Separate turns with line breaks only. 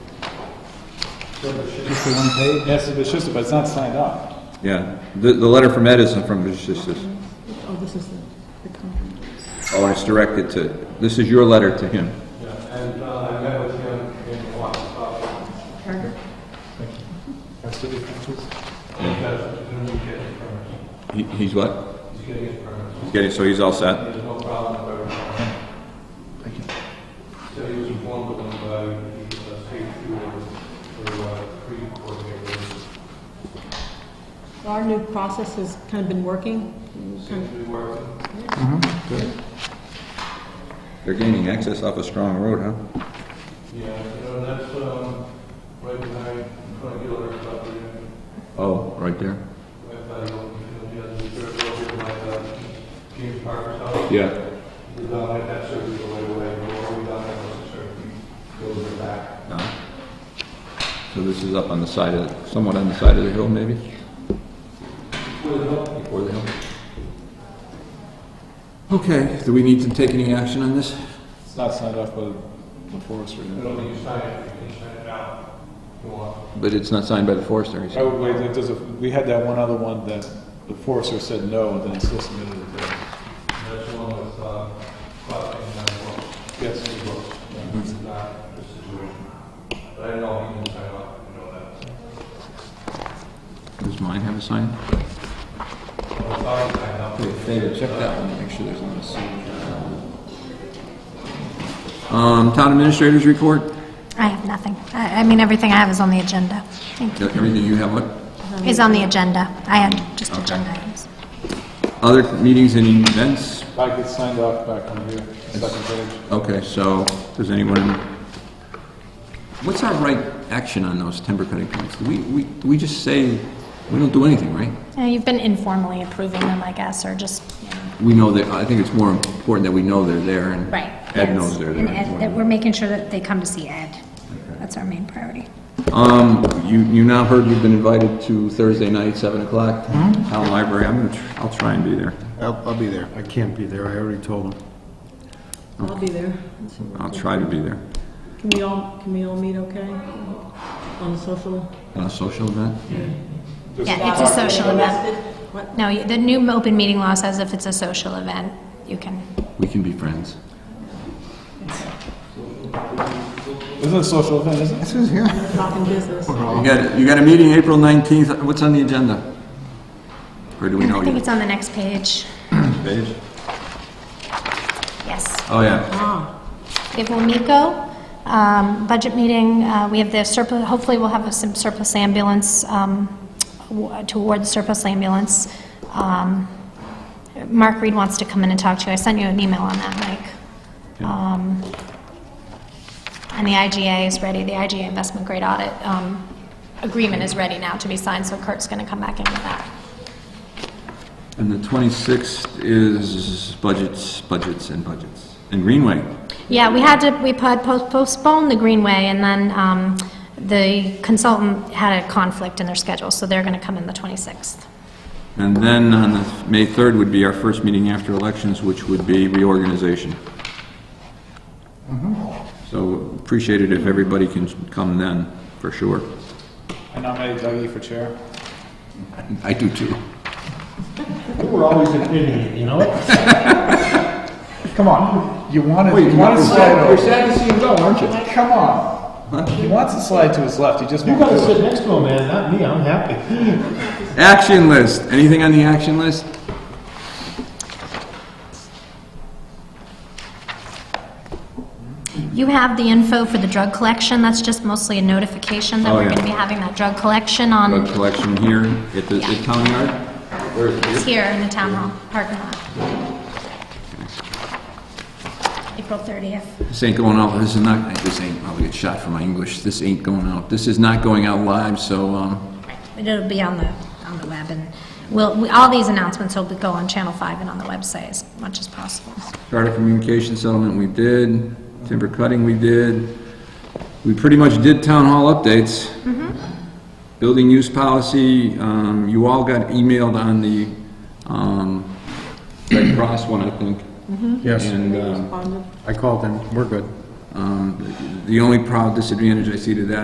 Just the one page? Yes, it's just, but it's not signed off.
Yeah, the, the letter from Edison from Vishistas.
Oh, this is the, the contract.
Oh, and it's directed to, this is your letter to him.
And uh, I met with him in Washington,
Parker?
That's the difference.
because he's getting his permits.
He, he's what?
He's getting his permits.
He's getting, so he's all set?
There's no problem with everything. So he was informed of them by the uh, state tour for uh, pre-coordinators.
Our new process has kind of been working.
Seems to be working.
They're gaining access off a strong road, huh?
Yeah, you know, and that's um, right behind, trying to get a little property.
Oh, right there?
Right by, the old, you know, the other, third over by uh, James Parker's house.
Yeah.
We're down at that circuit the right away, or we're down at that circuit, goes in the back.
No. So this is up on the side of, somewhat on the side of the hill, maybe? Before the hill. Okay, do we need to take any action on this?
It's not signed off by the forester.
You don't need to sign it, you can sign it now, if you want.
But it's not signed by the forester, he's...
I would wait, like, there's a, we had that one other one that the forester said no, and then it's still submitted it there.
That's the one with, uh, Clark and Nine
Yes.
He books, it's not the situation. But I know he can sign off, you know that.
Does mine have a sign?
So it's already signed up.
David, check that one, make sure there's not a seal. Um, town administrators report,
I have nothing. I, I mean, everything I have is on the agenda. Thank you.
everything you have, what?
Is on the agenda. I had just
Okay.
agenda items.
Other meetings and events,
Back, it's signed off back on here, second page.
okay, so, does anyone? What's our right action on those timber cutting plans? Do we, we, do we just say, we don't do anything, right?
Uh, You've been informally approving them, I guess, or just, you know,
We know that, I think it's more important that we know they're there and
right.
Ed
yes.
knows they're
And Ed- that
there.
we're making sure that they come to see Ed. That's our main priority.
Um, you, you now heard you've been invited to Thursday night, seven o'clock,
Mm-hmm.
town library, I'm gonna, tr- I'll try and be there.
I'll, I'll be there. I can't be there, I already told him.
I'll be there.
I'll try to be there.
Can we all, can we all meet okay? On social?
On a social event?
Yeah, it's a social event.
What?
No, you- the new open meeting law says if it's a social event, you can,
We can be friends.
Isn't it a social event, isn't it?
This is, yeah.
Talking business.
You got, you got a meeting April 19th, what's on the agenda? Or do we know
I think
yet?
it's on the next page.
Page?
Yes.
Oh, yeah.
We have WMICO, um, budget meeting, uh, we have the surplus, hopefully we'll have some surplus ambulance, um, awa- to award the surplus ambulance. Um, Mark Reed wants to come in and talk to you, I sent you an email on that, Mike. Um, And the IGA is ready, the IGA investment grade audit um, agreement is ready now to be signed, so Kurt's going to come back in with that.
And the 26th is budgets, budgets, and budgets. And Greenway.
Yeah, we had to, we had post- postponed the Greenway, and then um, the consultant had a conflict in their schedule, so they're going to come in the 26th.
And then on the, May 3rd would be our first meeting after elections, which would be reorganization. Mm-hmm. So appreciate it if everybody can come then, for sure.
I nominate Dougie for chair.
I do too.
You were always an idiot, you know? Come on.
You wanted,
Wait,
you wanted to
you're
slide
sad-
over.
you're sad to see him go, aren't you? Come on.
He wants to slide to his left, he just
You
won't
gotta
do it.
sit next to him, man, not me, I'm happy.
Action list, anything on the action list?
You have the info for the drug collection, that's just mostly a notification that
Oh,
we're
yeah.
going to be having that drug collection on,
Drug collection here at the at town yard? Where is
it's
it?
here in the town hall, parking lot. April 30th.
This ain't going out, this is not, this ain't, I'll get shot for my English, this ain't going out, this is not going out live, so, um,
It'll be on the, on the web, and we'll, we- all these announcements will go on Channel 5 and on the website as much as possible.
charter communication settlement we did, timber cutting we did, we pretty much did town hall updates. Building use policy, um, you all got emailed on the, um, Red Cross one, I think.
Yes,
And, um,
Responded.
I called him, we're good.
um, the only proud disadvantage I see to that